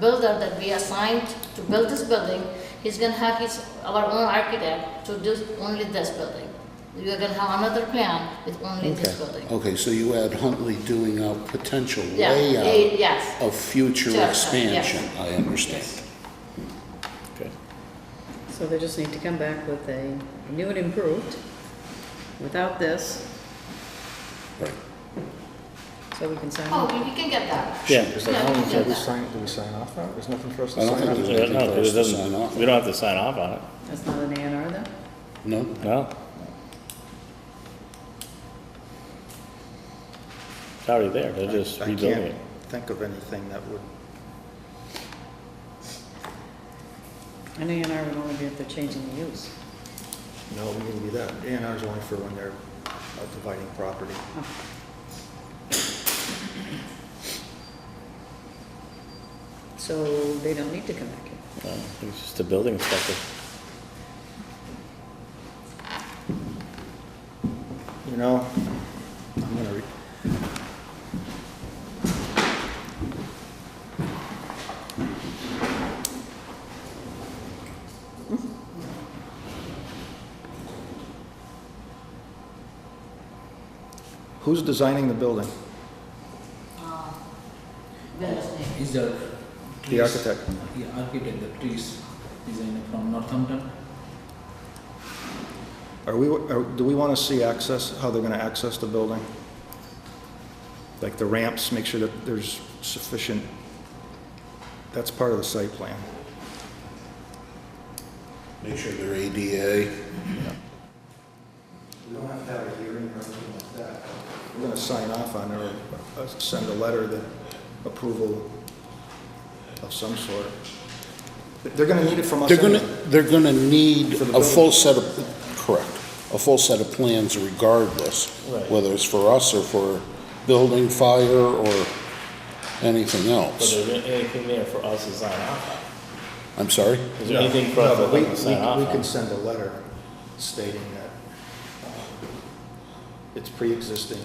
builder that we assigned to build this building, he's gonna have his, our own architect to do only this building. We're gonna have another plan with only this building. Okay, so you had Huntley doing a potential Yeah, eh, layout yes, of future Sure, sure, expansion, I understand. yes. Okay. So they just need to come back with a new and improved, without this, Right. so we can sign Oh, it. we- we can get that. Yeah. Is that Yeah, how, we can did get oh, we that. sign, did we sign off on it? There's nothing for us I to don't sign think off? there's Yeah, No, because it Just to sign off. doesn't, we don't have to sign off on it, That's not an A and R then? No? no? It's already there, they're just I rebuilding can't it. think of anything that would, An A and R would only be if they're changing the use. no, we need to do that. A and R's only for when they're uh, dividing property. So they don't need to come back here. No, It's just a building inspector. You know, I'm gonna, re- who's designing the building? Uh, builder's name. Is the The architect. The architect, the trees designer from Northampton. Are we, are- do we want to see access, how they're going to access the building? Like the ramps, make sure that there's sufficient, that's part of the site plan. Make sure they're ADA. We don't have to have a hearing or anything like that. We're going to sign off on it or uh, send a letter that approval of some sort. They're going to need it from us They're gonna, anyway. they're gonna need For the a full set of, correct, a full set of plans regardless, Right. whether it's for us or for building, fire, or anything But else. there isn't anything there for us to sign off I'm sorry? on. Is there anything for No, us but we- to sign we- off We can on? send a letter stating that uh, it's pre-existing.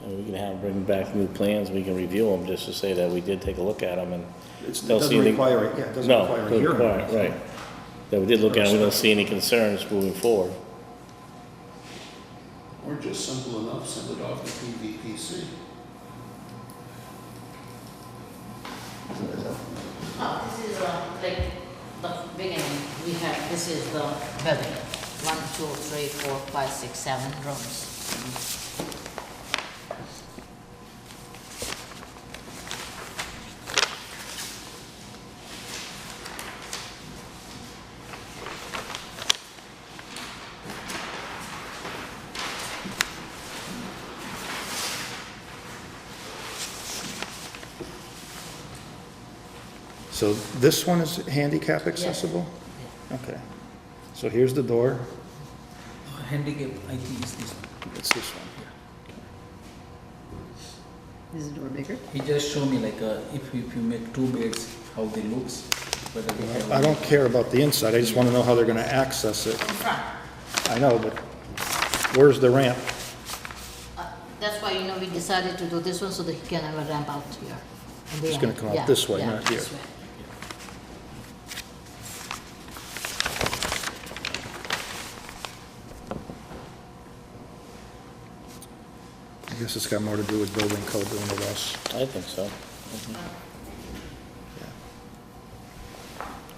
And we can have, bring back new plans, we can review them, just to say that we did take a look at them and. It's- It don't see doesn't any- require, a- yeah, it doesn't No, require a doesn't hearing. or require- anything. Right, that we did look at, it, we don't see any concerns moving forward. Or just simple enough, send it off to PVPC. Oh, this is uh, like the beginning, we have, this is the building. One, two, three, four, five, six, seven rooms. So this one is handicap accessible? Okay. So here's the door. Uh, Handicap, I think is this one. It's this one here. Is the door bigger? He just showed me like uh, if, if you make two beds, how they looks, whether they have. I don't care about the inside, I just want to know how they're going to access it. In front, I know, but where's the ramp? Uh, that's why, you know, we decided to do this one so that he can have a ramp out here. in the It's gonna end. come out Yeah, this way, yeah, not here. this way. I guess it's got more to do with building code than with us. I think so.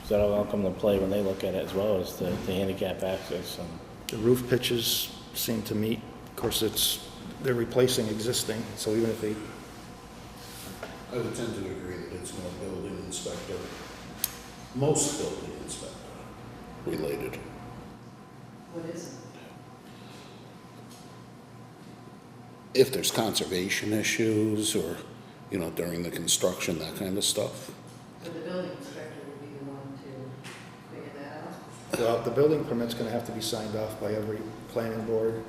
So that'll all come to play when they look at it as well as the, the handicap access and, The roof pitches seem to meet, of course, it's, they're replacing existing, so even if they, I would tend to agree that it's more building inspector, most building inspector related. What is it? If there's conservation issues or, you know, during the construction, that kind of stuff. But the building inspector would be the one to figure that out? well, the building permit's gonna have to be signed off by every planning board.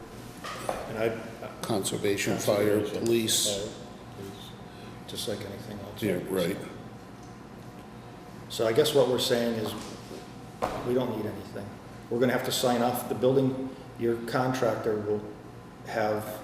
And I, uh, Conservation, fire, Conservation, police, uh, just like anything else. yeah, right. So I guess what we're saying is, we don't need anything. We're gonna have to sign off, the building, your contractor will have